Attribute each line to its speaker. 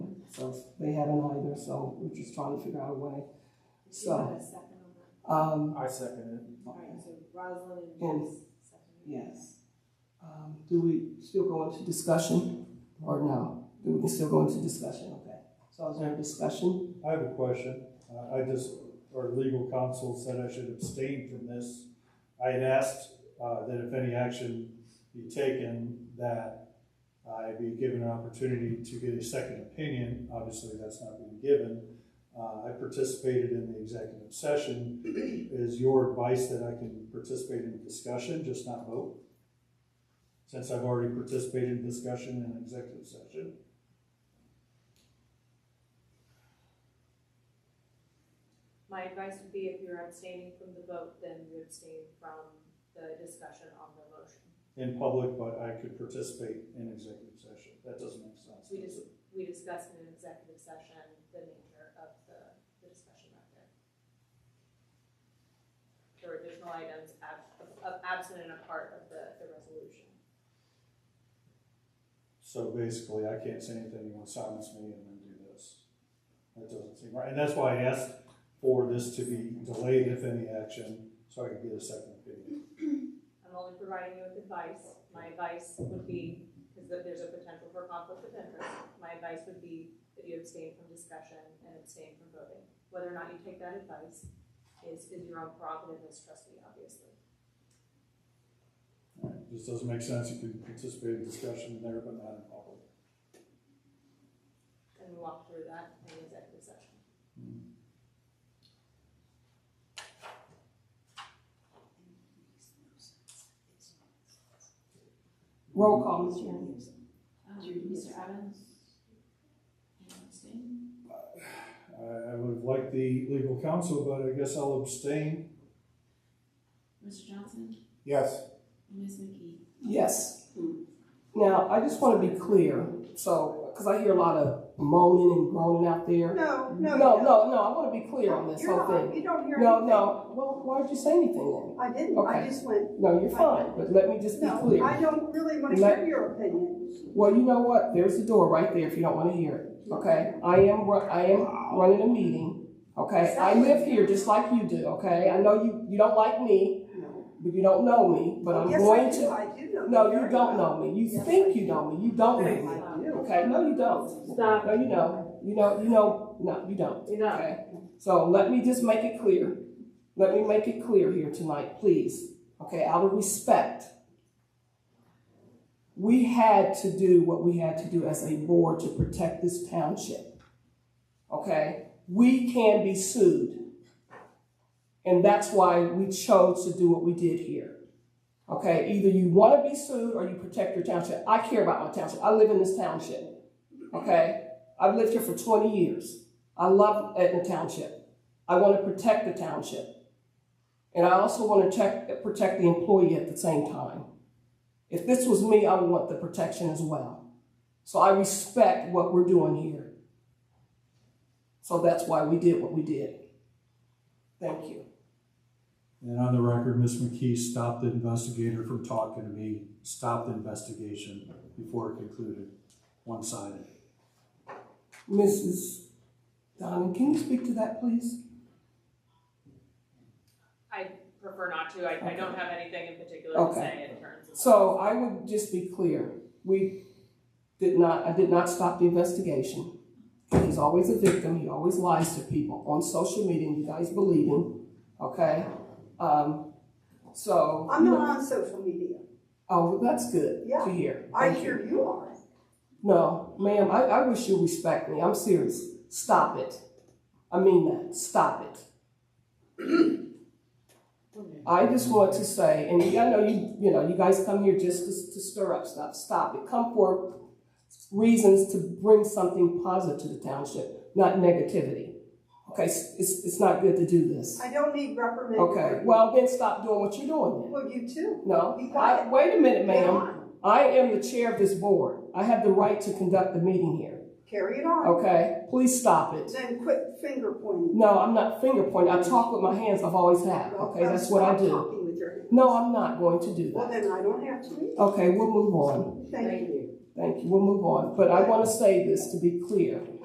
Speaker 1: because they haven't either, so we're just trying to figure out a way.
Speaker 2: Do you have
Speaker 1: So,
Speaker 2: a second on
Speaker 1: um,
Speaker 2: that?
Speaker 3: I second
Speaker 2: All right, so Rosalind and
Speaker 1: And-
Speaker 2: Bruce seconded.
Speaker 1: yes. Um, do we still go into discussion or no? Do we still go into discussion? Okay. So is there a discussion?
Speaker 4: I have a question. Uh, I just, our legal counsel said I should abstain from this. I had asked uh, that if any action be taken, that I be given an opportunity to get a second opinion. Obviously, that's not been given. Uh, I participated in the executive session. Is your advice that I can participate in discussion, just not vote? Since I've already participated in discussion in executive session?
Speaker 2: My advice would be if you're abstaining from the vote, then you abstain from the discussion on the motion.
Speaker 4: in public, but I could participate in executive session. That doesn't make sense.
Speaker 2: We just, we discussed in an executive session the nature of the, the discussion out there. There were additional items ab, of- of absent and a part of the, the resolution.
Speaker 4: So basically, I can't say anything, you want to silence me and then do this. That doesn't seem right, and that's why I asked for this to be delayed, if any action, so I could get a second opinion.
Speaker 2: I'm only providing you with advice. My advice would be, because there's a potential for conflict of interest, my advice would be that you abstain from discussion and abstain from voting. Whether or not you take that advice is, is your own prerogative as trustee, obviously.
Speaker 4: All right, This doesn't make sense, you can participate in discussion there, but not in public.
Speaker 2: And we walk through that in the executive session.
Speaker 1: Roll call, Ms. Jeremy.
Speaker 5: Uh, Mr. Evans?
Speaker 4: I, I would have liked the legal counsel, but I guess I'll abstain.
Speaker 5: Mr. Johnson?
Speaker 3: Yes.
Speaker 5: And Ms. McKee?
Speaker 1: Yes. Now, I just want to be clear, so, because I hear a lot of moaning and groaning out there.
Speaker 6: No,
Speaker 1: No,
Speaker 6: no,
Speaker 1: no,
Speaker 6: you don't.
Speaker 1: no, I want to be clear on this
Speaker 6: You're
Speaker 1: whole
Speaker 6: not,
Speaker 1: thing.
Speaker 6: you don't hear anything.
Speaker 1: No, no, well, why did you say anything
Speaker 6: I didn't, I
Speaker 1: Okay.
Speaker 6: just went,
Speaker 1: then? No, you're fine, but let me just be
Speaker 6: no, I
Speaker 1: clear.
Speaker 6: don't really wanna
Speaker 1: Let-
Speaker 6: hear your opinion.
Speaker 1: Well, you know what, there's the door right there if you don't want to hear it, okay? I am, ru- I am running a meeting, okay? I live here just like you do, okay? I know you, you don't like me,
Speaker 6: No.
Speaker 1: but you don't know me, but I'm
Speaker 6: Yes, I
Speaker 1: going
Speaker 6: do.
Speaker 1: to.
Speaker 6: I do know.
Speaker 1: No,
Speaker 6: very
Speaker 1: you don't
Speaker 6: well.
Speaker 1: know me, you
Speaker 6: Yes, I
Speaker 1: think you
Speaker 6: do.
Speaker 1: know me, you don't know me.
Speaker 6: I do.
Speaker 1: Okay, no, you don't.
Speaker 2: Stop.
Speaker 1: No, you know, you know, you know, no, you don't.
Speaker 2: You know.
Speaker 1: Okay, so let me just make it clear. Let me make it clear here tonight, please. Okay, out of respect. We had to do what we had to do as a board to protect this township. Okay, we can be sued. And that's why we chose to do what we did here. Okay, either you want to be sued or you protect your township. I care about my township. I live in this township. Okay, I've lived here for 20 years. I love Etna Township. I want to protect the township. And I also want to check, protect the employee at the same time. If this was me, I would want the protection as well. So I respect what we're doing here. So that's why we did what we did. Thank you.
Speaker 4: And on the record, Ms. McKee stopped the investigator from talking to me, stopped the investigation before it concluded, one-sided.
Speaker 1: Mrs. Donovan, can you speak to that, please?
Speaker 2: I prefer not to. I, I don't have anything in particular to
Speaker 1: Okay.
Speaker 2: say in terms of.
Speaker 1: So I would just be clear, we did not, I did not stop the investigation. He's always a victim, he always lies to people on social media, and you guys believe him, okay? Um, so.
Speaker 6: I'm not on social media.
Speaker 1: Oh, well, that's good
Speaker 6: Yeah.
Speaker 1: to hear.
Speaker 6: I
Speaker 1: Thank you.
Speaker 6: hear you are.
Speaker 1: No, ma'am, I, I wish you respect me, I'm serious, stop it. I mean that, stop it. I just want to say, and I know you, you know, you guys come here just to, to stir up stuff. Stop it. Come for reasons to bring something positive to the township, not negativity. Okay, it's, it's it's not good to do this.
Speaker 6: I don't need reprimand.
Speaker 1: Okay, well, then stop doing what you're doing then.
Speaker 6: Well, you too.
Speaker 1: No, I, wait a minute, ma'am. I am the chair of this board. I have the right to conduct the meeting here.
Speaker 6: Carry it on.
Speaker 1: Okay, please stop it.
Speaker 6: Then quit finger pointing.
Speaker 1: No, I'm not finger pointing. I talk with my hands. I've always have. Okay,
Speaker 6: Well,
Speaker 1: that's what I
Speaker 6: stop
Speaker 1: do.
Speaker 6: talking with your hands.
Speaker 1: No, I'm not going to do
Speaker 6: Well,
Speaker 1: that.
Speaker 6: then I don't have to. either.
Speaker 1: Okay, we'll move on.
Speaker 6: Thank you.
Speaker 1: Thank you, we'll move on, but I want to say this to be clear.